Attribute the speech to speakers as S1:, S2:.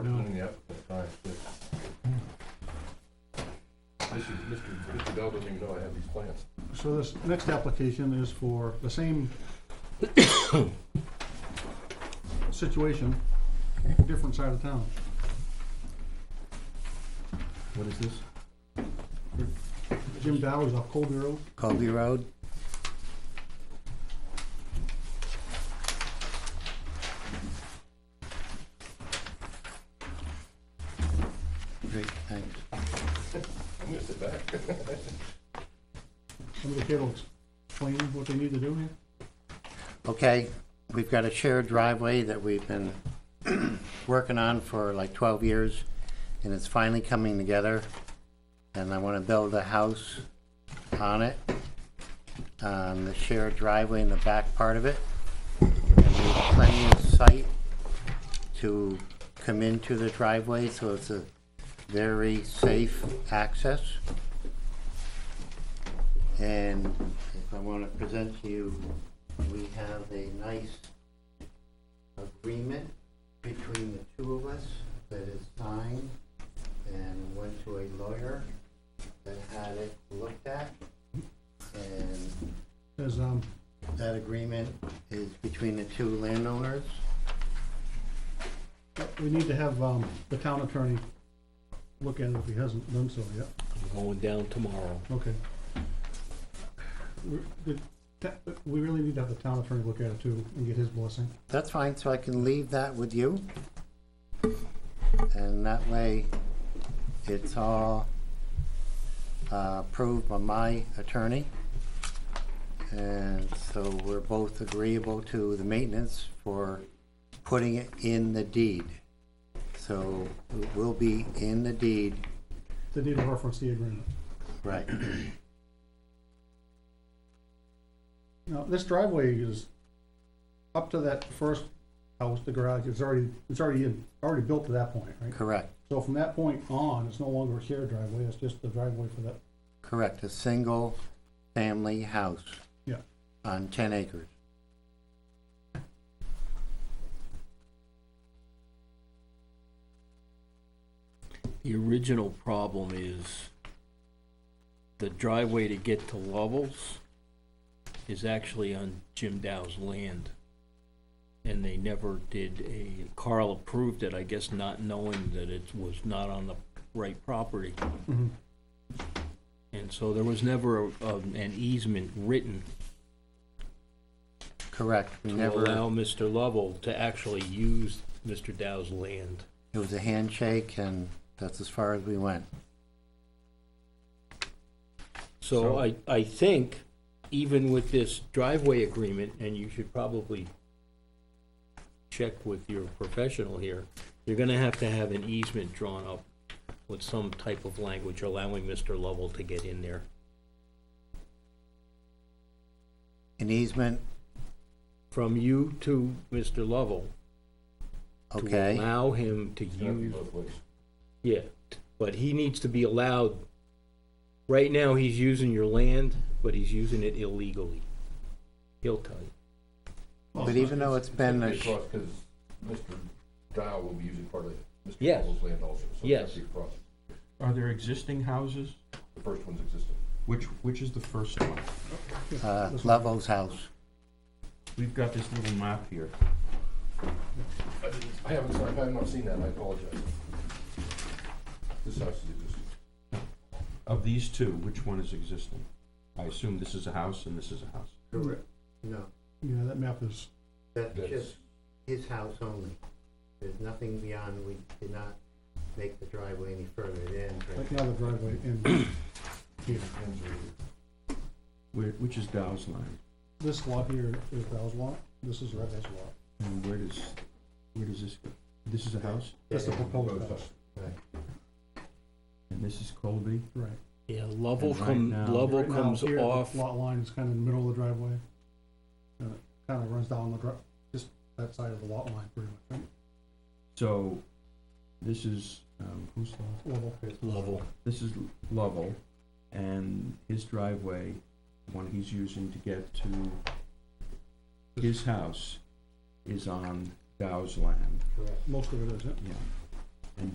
S1: Mm.
S2: Mm,
S1: Mm.
S2: Adele doesn't even know I have these plans.
S3: So this next application is for the same situation, different side of town.
S4: What is this?
S3: Jim Dowers off Colby Road.
S4: Colby Road? Great, thanks.
S2: I'm gonna sit back.
S3: Somebody here will explain what they need to do here.
S4: Okay, we've got a shared driveway that we've been working on for like twelve years, and it's finally coming together. And I wanna build a house on it, on the shared driveway in the back part of it. And we have plenty of site to come into the driveway, so it's a very safe access. And if I wanna present to you we have a nice agreement between the two of us that is signed and went to a lawyer that had it looked at. And
S3: There's, um,
S4: that agreement is between the two landowners.
S3: we need to have, um, the town attorney look at it if he hasn't done so yet.
S5: I'm going down tomorrow.
S3: Okay. We- the ta- We really need to have the town attorney look at it too and get his blessing.
S4: That's fine, so I can leave that with you. And that way, it's all uh, approved by my attorney. And so we're both agreeable to the maintenance for putting it in the deed. So it will be in the deed,
S3: They need to reference the agreement.
S4: right,
S3: Now, this driveway is up to that first house, the garage, it's already, it's already in, already built to that point, right?
S4: correct,
S3: So from that point on, it's no longer a shared driveway, it's just the driveway for that,
S4: correct, a single-family house
S3: yeah.
S4: on 10 acres.
S5: The original problem is the driveway to get to Lovell's is actually on Jim Dow's land. And they never did a, Carl approved it, I guess not knowing that it was not on the right property.
S3: Mhm.
S5: And so there was never a- um, an easement written
S4: Correct, we
S5: to
S4: never...
S5: allow Mr. Lovell to actually use Mr. Dow's land.
S4: It was a handshake, and that's as far as we went.
S5: So I, I think even with this driveway agreement, and you should probably check with your professional here, you're gonna have to have an easement drawn up with some type of language allowing Mr. Lovell to get in there.
S4: An easement,
S5: From you to Mr. Lovell to
S4: okay,
S5: allow him to
S2: It's gonna be
S5: use,
S2: both ways.
S5: yeah, but he needs to be allowed. Right now, he's using your land, but he's using it illegally. He'll tell you.
S3: Well,
S4: but even though it's been a, sh-
S2: Because Mr. Dow will be using part of Mr.
S5: Yes.
S2: Lovell's land also, so
S5: Yes.
S2: it's gonna be across.
S1: Are there existing houses?
S2: The first one's existing.
S1: Which, which is the first one?
S4: uh, Lovell's house,
S1: We've got this little map here.
S2: I didn't- I haven't, sorry, I have not seen that, I apologize. This house is existing.
S1: Of these two, which one is existing? I assume this is a house and this is a house.
S3: Correct.
S4: no,
S3: Yeah, that map is,
S4: that's
S2: That's-
S4: just his house only. There's nothing beyond, we did not make the driveway any further than,
S3: like now the driveway in here.
S1: Where, which is Dow's line?
S3: This lot here is Val's lot, this is Red House lot.
S1: And where does, where does this go? This is a house
S3: That's the proposed house,
S1: and this is Colby?
S3: right.
S5: Yeah, Lovell
S1: And right
S5: come,
S1: now-
S5: Lovell
S3: Right now,
S5: comes
S3: here, the
S5: off,
S3: Lot line is kind of in the middle of the driveway. And it kind of runs down the, dri- just that side of the lot line pretty much, right?
S1: So this is, um, who's Lovell?
S3: Level.
S5: Lovell.
S1: This is Lovell and his driveway, one he's using to get to his house, is on Dow's land.
S4: correct.
S3: Most of it is, yeah.
S1: Yeah.